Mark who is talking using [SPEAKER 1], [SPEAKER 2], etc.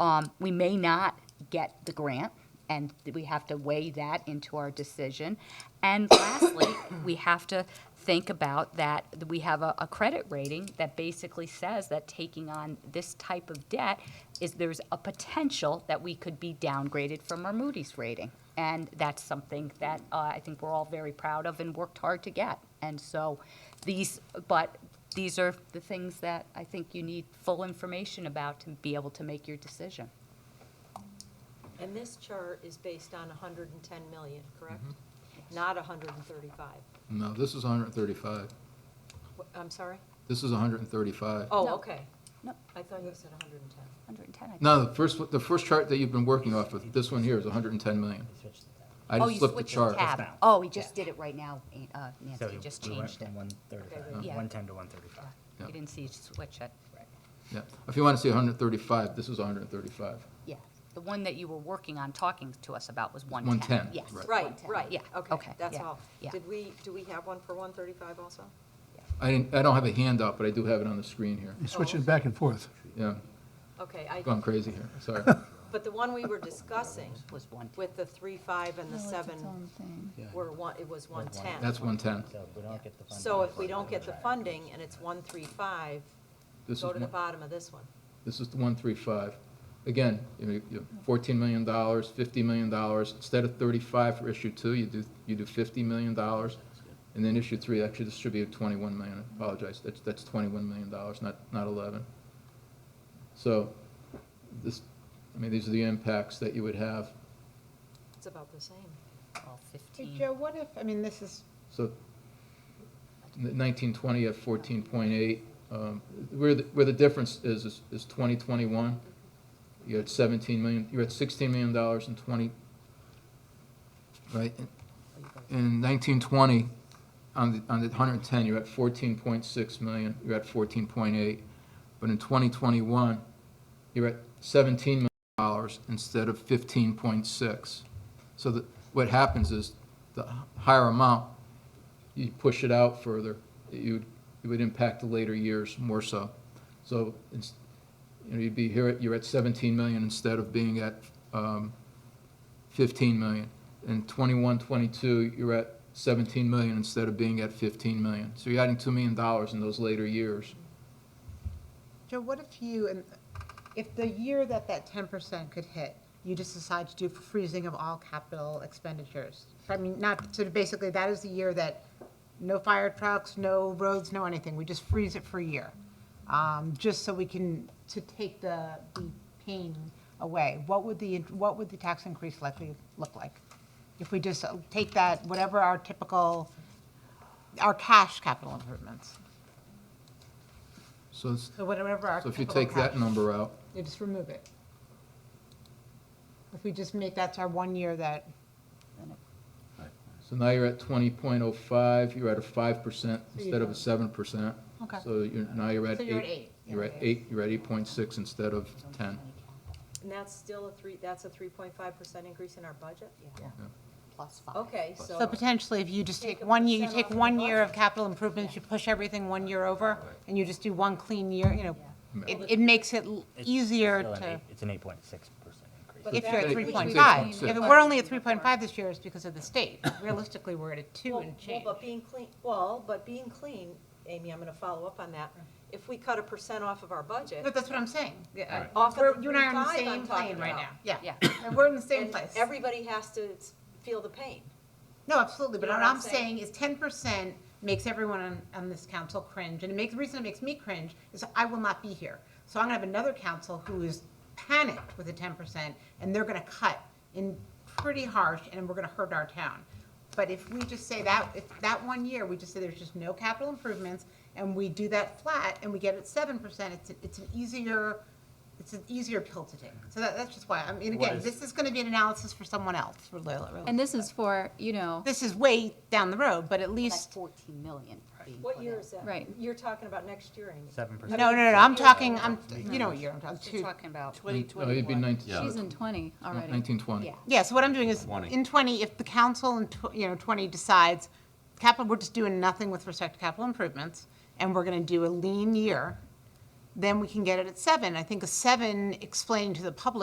[SPEAKER 1] Um, we may not get the grant, and we have to weigh that into our decision. And lastly, we have to think about that we have a, a credit rating that basically says that taking on this type of debt is there's a potential that we could be downgraded from our Moody's rating. And that's something that uh, I think we're all very proud of and worked hard to get. And so these, but these are the things that I think you need full information about to be able to make your decision.
[SPEAKER 2] And this chart is based on 110 million, correct?
[SPEAKER 1] Mm-hmm.
[SPEAKER 2] Not 135.
[SPEAKER 3] No, this is 135.
[SPEAKER 2] Wh- I'm sorry?
[SPEAKER 3] This is 135.
[SPEAKER 2] Oh,
[SPEAKER 1] No.
[SPEAKER 2] okay.
[SPEAKER 1] No.
[SPEAKER 2] I thought you said 110.
[SPEAKER 1] 110, I think.
[SPEAKER 3] No, the first, the first chart that you've been working off of, this one here is 110 million. I
[SPEAKER 1] Oh,
[SPEAKER 3] just
[SPEAKER 1] you
[SPEAKER 3] flipped the
[SPEAKER 1] switched the
[SPEAKER 3] chart.
[SPEAKER 1] tab.
[SPEAKER 4] now.
[SPEAKER 1] Oh, we just did it right now, uh,
[SPEAKER 4] So
[SPEAKER 1] Nancy, you just
[SPEAKER 4] we went
[SPEAKER 1] changed it.
[SPEAKER 4] from one
[SPEAKER 2] Okay,
[SPEAKER 4] thirty-five,
[SPEAKER 1] yeah.
[SPEAKER 4] one ten to one thirty-five.
[SPEAKER 1] You didn't see you switch it.
[SPEAKER 3] Yeah, if you want to see 135, this is 135.
[SPEAKER 1] Yeah, the one that you were working on talking to us about was
[SPEAKER 3] 110,
[SPEAKER 1] 110. Yes.
[SPEAKER 3] right.
[SPEAKER 2] Right,
[SPEAKER 1] 110.
[SPEAKER 2] right.
[SPEAKER 1] Yeah, okay.
[SPEAKER 2] That's
[SPEAKER 1] yeah,
[SPEAKER 2] all.
[SPEAKER 1] yeah.
[SPEAKER 2] Did we, do we have one for 135 also?
[SPEAKER 3] I didn't, I don't have a handout, but I do have it on the screen here.
[SPEAKER 5] You're switching back and forth.
[SPEAKER 3] Yeah,
[SPEAKER 2] Okay, I,
[SPEAKER 3] gone crazy here, sorry.
[SPEAKER 2] but the one we were discussing
[SPEAKER 1] Was 110.
[SPEAKER 2] with the 3.5 and the 7 were one, it was 110.
[SPEAKER 3] That's 110.
[SPEAKER 4] So if we don't get the funding.
[SPEAKER 2] So if we don't get the funding and it's 135,
[SPEAKER 3] This is,
[SPEAKER 2] go to the
[SPEAKER 3] one-
[SPEAKER 2] bottom of this one.
[SPEAKER 3] this is the 135. Again, you know, you- $14 million, $50 million, instead of 35 for issue two, you do, you do $50 million. And then issue three, actually, this should be 21 million, I apologize, that's, that's 21 million dollars, not, not 11. So, this, I mean, these are the impacts that you would have.
[SPEAKER 2] It's about the same.
[SPEAKER 1] Well,
[SPEAKER 6] Hey,
[SPEAKER 1] 15.
[SPEAKER 6] Joe, what if, I mean, this is,
[SPEAKER 3] So 1920 at 14.8, um, where, the- where the difference is, is- is 2021, you're at 17 million, you're at 16 million dollars in 20, right? In 1920, on the, on the 110, you're at 14.6 million, you're at 14.8. But in 2021, you're at 17 million dollars instead of 15.6. So that, what happens is, the higher amount, you push it out further, you, would- it would impact the later years more so. So, it's- you know, you'd be here, at- you're at 17 million instead of being at um, 15 million. In 21, 22, you're at 17 million instead of being at 15 million. So you're adding $2 million in those later years.
[SPEAKER 6] Joe, what if you, and if the year that that ten percent could hit, you just decide to do freezing of all capital expenditures? I mean, not, so basically, that is the year that no fire trucks, no roads, no anything, we just freeze it for a year. Um, just so we can, to take the, the pain away. What would the, what would the tax increase likely look like? If we just uh, take that, whatever our typical, our cash capital improvements?
[SPEAKER 3] So, it's-
[SPEAKER 6] So whatever our.
[SPEAKER 3] so if you
[SPEAKER 6] typical
[SPEAKER 3] take that
[SPEAKER 6] cash-
[SPEAKER 3] number out,
[SPEAKER 6] You just remove it. If we just make, that's our one year that,
[SPEAKER 3] so now you're at 20.05, you're at a 5%
[SPEAKER 6] you
[SPEAKER 3] instead of a
[SPEAKER 6] don't-
[SPEAKER 3] 7%.
[SPEAKER 6] Okay.
[SPEAKER 3] So you're, now you're at 8.
[SPEAKER 6] so you're at eight.
[SPEAKER 3] You're at 8, you're at 8.6 instead of 10.
[SPEAKER 2] And that's still a three, that's a 3.5% increase in our budget?
[SPEAKER 1] Plus 5.
[SPEAKER 2] Okay, so.
[SPEAKER 6] So potentially, if you just
[SPEAKER 2] Take
[SPEAKER 6] take
[SPEAKER 2] a
[SPEAKER 6] one year, you
[SPEAKER 2] percent
[SPEAKER 6] take
[SPEAKER 2] off the
[SPEAKER 6] one year of
[SPEAKER 2] budget.
[SPEAKER 6] capital improvements, you push everything one year over, and you just do one clean year, you know,
[SPEAKER 3] Yeah.
[SPEAKER 6] it, it makes it l-
[SPEAKER 4] It's
[SPEAKER 6] easier
[SPEAKER 4] still an
[SPEAKER 6] to,
[SPEAKER 4] eight- It's an eight point six percent increase.
[SPEAKER 6] if you're at
[SPEAKER 3] But
[SPEAKER 6] three
[SPEAKER 3] we
[SPEAKER 6] point
[SPEAKER 3] should
[SPEAKER 6] five.
[SPEAKER 3] be
[SPEAKER 6] If
[SPEAKER 3] clean.
[SPEAKER 6] it we're only at three point five this year, it's because of the state. Realistically, we're at a two
[SPEAKER 2] Well-
[SPEAKER 6] and change.
[SPEAKER 2] Well, but being clean, well, but being clean, Amy, I'm gonna follow up on that. If we cut a percent off of our
[SPEAKER 6] But
[SPEAKER 2] budget,
[SPEAKER 6] that's what I'm saying. Yeah, I-
[SPEAKER 2] Off of
[SPEAKER 6] we're- You and I are on the
[SPEAKER 2] 3.5 I'm
[SPEAKER 6] same
[SPEAKER 2] talking
[SPEAKER 6] plane right now,
[SPEAKER 2] about.
[SPEAKER 6] yeah.
[SPEAKER 1] Yeah.
[SPEAKER 6] And We're in the same
[SPEAKER 2] and
[SPEAKER 6] place.
[SPEAKER 2] everybody has to s- feel the pain.
[SPEAKER 6] No, absolutely, but
[SPEAKER 2] You know
[SPEAKER 6] what
[SPEAKER 2] what I'm
[SPEAKER 6] I'm saying is ten percent makes everyone on, on this council cringe, and it makes, the reason it makes me cringe is I will not be here. So I'm gonna have another council who is panicked with the ten percent, and they're gonna cut in pretty harsh, and we're gonna hurt our town. But if we just say that, if that one year, we just say there's just no capital improvements, and we do that flat, and we get it seven percent, it's, it's an easier, it's an easier pill to take. So that, that's just why, I mean, again, this is gonna be an analysis for someone else, for Loyola. really.
[SPEAKER 7] And this is for, you know,
[SPEAKER 6] This is way down the road, but at
[SPEAKER 1] That's
[SPEAKER 6] least,
[SPEAKER 1] 14 million being put
[SPEAKER 2] What
[SPEAKER 1] in.
[SPEAKER 2] year is that?
[SPEAKER 7] Right.
[SPEAKER 2] You're talking about next year, Amy.
[SPEAKER 4] Seven
[SPEAKER 6] no,
[SPEAKER 4] percent.
[SPEAKER 6] no, no, I'm talking, I'm, you know what year I'm
[SPEAKER 1] She's
[SPEAKER 6] talking, two.
[SPEAKER 1] talking about,
[SPEAKER 3] No, Oh, it'd be 19,
[SPEAKER 7] she's in 20 already.
[SPEAKER 3] 1920.
[SPEAKER 1] yeah.
[SPEAKER 6] Yeah, so what I'm doing is, in twenty, if the council in, tw- you know, twenty decides, capital, we're just doing nothing with respect to capital improvements, and we're gonna do a lean year, then we can get it at seven. I think a seven explaining to the public